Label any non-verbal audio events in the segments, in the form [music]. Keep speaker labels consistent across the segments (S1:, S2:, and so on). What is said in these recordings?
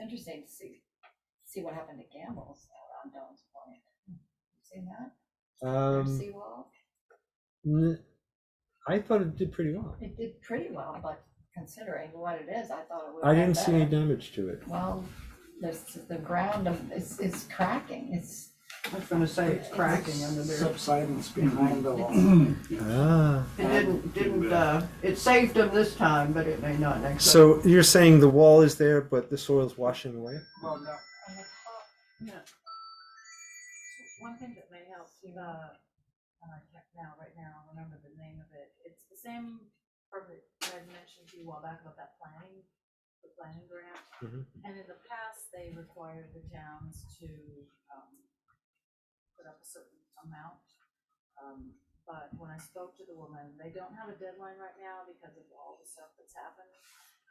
S1: interesting to see, see what happened to Gamble's out on Don's Point. You Seen that? Their
S2: Um,
S1: Seawall?
S2: n- I thought it did pretty well.
S1: It did pretty well, but considering what it is, I thought it would.
S2: I
S1: have
S2: didn't see any
S1: better.
S2: damage to it.
S1: Well, there's, the ground of, it's, it's cracking, it's,
S3: I was gonna say it's cracking under there.
S4: subsidence behind the wall.
S2: Ah.
S3: It didn't, didn't, uh, it saved them this time, but it may not next time.
S2: So you're saying the wall is there, but the soil's washing away?
S1: well, no.
S5: One thing that may help, Eva, uh, check now, right now, I'll remember the name of it, it's the same firm that I mentioned to you a while back about that planning, the planning grant.
S2: Mhm.
S5: And in the past, they required the towns to, um, put up a certain amount. Um, but when I spoke to the woman, they don't have a deadline right now because of all the stuff that's happened.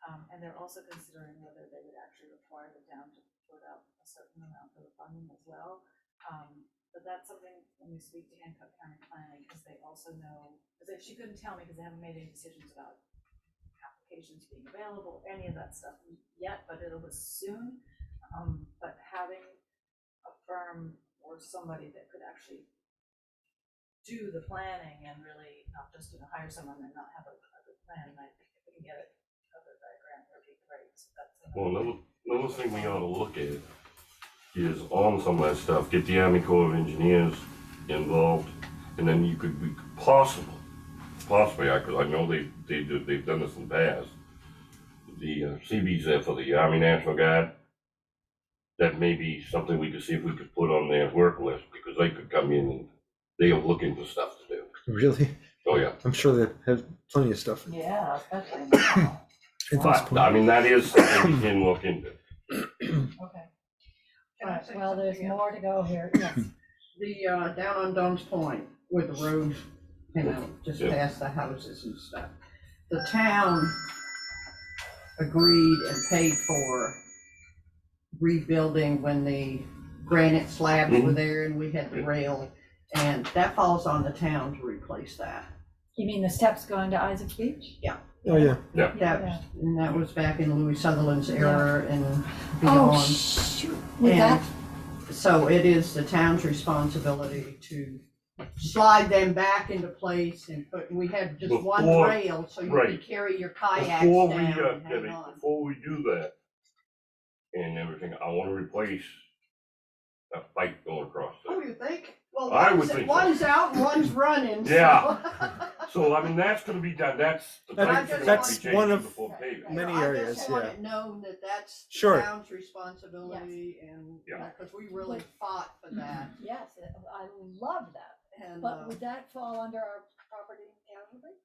S5: Um, and they're also considering whether they would actually require the town to put up a certain amount for the funding as well. Um, but that's something when we speak to Hancock County Planning, because they also know, because she couldn't tell me because they haven't made any decisions about applications being available, any of that stuff yet, but it'll be soon. Um, but having a firm or somebody that could actually do the planning and really not just, you know, hire someone and not have a, a good plan, I think if we can get it covered by a grant, that'd be great, so that's.
S6: Well, another, another thing we ought to look at is on some of that stuff, get the Army Corps of Engineers involved, and then you could be possible, possibly, I, cause I know they, they do, they've done this in the past. The uh, CB's there for the Army National Guard. That may be something we could see if we could put on their work list, because they could come in and they are looking for stuff to do.
S2: [laughs] Really?
S6: Oh, yeah.
S2: I'm sure they have plenty of stuff at
S1: Yeah, especially now.
S2: this
S6: But, I
S2: point.
S6: mean, that is something we can look into.
S1: Okay.
S3: Can I
S1: Alright,
S3: say
S1: well, there's
S3: something else?
S1: more to go here,
S2: [coughs]
S1: yes.
S3: The, uh, down on Don's Point where the road came out, just
S6: Yeah.
S3: past the houses and stuff. The town agreed and paid for rebuilding when the granite slabs were
S6: Mhm.
S3: there and we had the rail. And that falls on the town to replace that.
S1: You mean the steps going to Isaac Beach?
S2: Oh, yeah.
S3: That, was- and that was back in Louis Sutherland's era and
S1: Oh,
S3: beyond.
S1: shoot, with that,
S3: And So it is the town's responsibility to slide them back into place and put, we have just one
S6: Before-
S3: rail, so you can
S6: right.
S3: carry your kayaks
S6: Before
S3: down
S6: we,
S3: and
S6: uh,
S3: hang
S6: Debbie,
S3: on.
S6: before we do that and everything, I wanna replace that bike going across
S3: Oh,
S6: there.
S3: you think? Well,
S6: I would
S3: one's,
S6: think so.
S3: one's out, one's running, so. [laughs]
S6: Yeah. So, I mean, that's gonna be done, that's, the
S2: That's-
S6: bike's gonna have
S2: that's
S6: to be
S2: one
S6: changed
S2: of-
S6: before paving.
S2: Many
S3: I
S2: areas,
S3: just want it known that that's
S2: Sure.
S3: the town's responsibility and,
S6: Yeah.
S3: because we really fought for that.
S1: yes, I love that,
S3: And, uh,
S1: but would that fall under our property and casualty?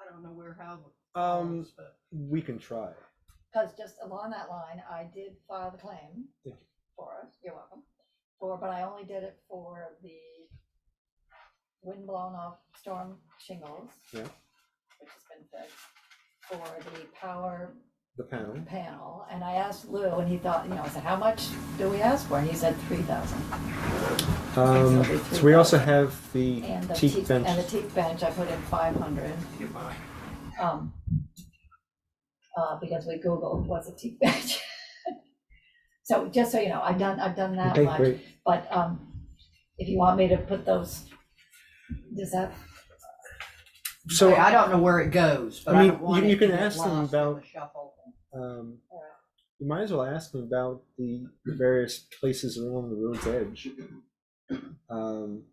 S3: I don't know where, how. it
S2: Um,
S3: falls, but-
S2: we can try.
S1: Because just along that line, I did file the claim
S2: Thank
S1: for us, you're welcome, for, but I only did it for the wind blown off storm shingles.
S2: Yeah.
S1: Which has been fixed, for the power
S2: The panel.
S1: panel, and I asked Lou, and he thought, you know, I said, how much do we ask for? And he said three thousand.
S2: Um, so we also have the
S1: And the
S2: teak
S1: teak, and
S2: bench.
S1: the teak bench, I put in five hundred. Um, uh, because we Googled what's a teak [laughs] bench. So just so you know, I've done, I've done that
S2: Okay,
S1: much,
S2: great.
S1: but, um, if you want me to put those, does that,
S2: So,
S3: I don't know where it goes, but
S2: I
S3: I
S2: mean,
S3: don't want
S2: you- you
S3: it
S2: can
S3: to get
S2: ask them
S3: lost in the
S2: about-
S3: shuffle.
S2: um, you might as well ask them about the various places along the road's edge. Um,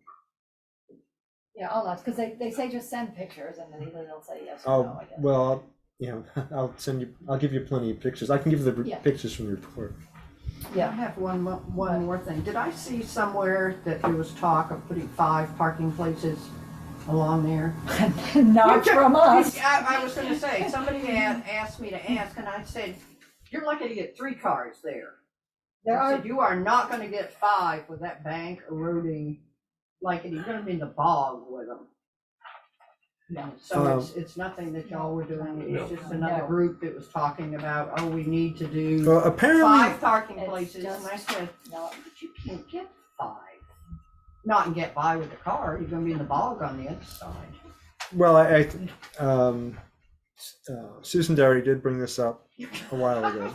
S1: yeah, all that, because they, they say just send pictures and then either they'll say yes or no,
S2: I'll,
S1: I guess.
S2: well, you know, [laughs] I'll send you, I'll give you plenty of pictures. I can give the r-
S1: Yeah.
S2: pictures from the report.
S3: I have one, mo- one more thing. Did I see somewhere that there was talk of putting five parking places along there?
S1: Yeah, [laughs] not
S3: [laughs]
S1: from us.
S3: I, I was gonna say, somebody had asked me to ask, and I said, you're lucky to get three cars there.
S1: There
S3: I
S1: are,
S3: said, you are not gonna get five with that bank eroding, like, and you're gonna be in the bog with them.
S1: no,
S3: So it's, it's nothing that y'all were doing, it was just another
S1: Oh. No.
S3: group that was talking about, oh, we need to do
S2: Well, apparently,
S3: five parking
S1: It's
S3: places, and I
S1: just-
S3: said,
S1: no,
S3: but you can't get five. Not and get by with the car, you're gonna be in the bog on the other side.
S2: well, I, I, um, s- uh, Susan Derry did bring this up a while ago.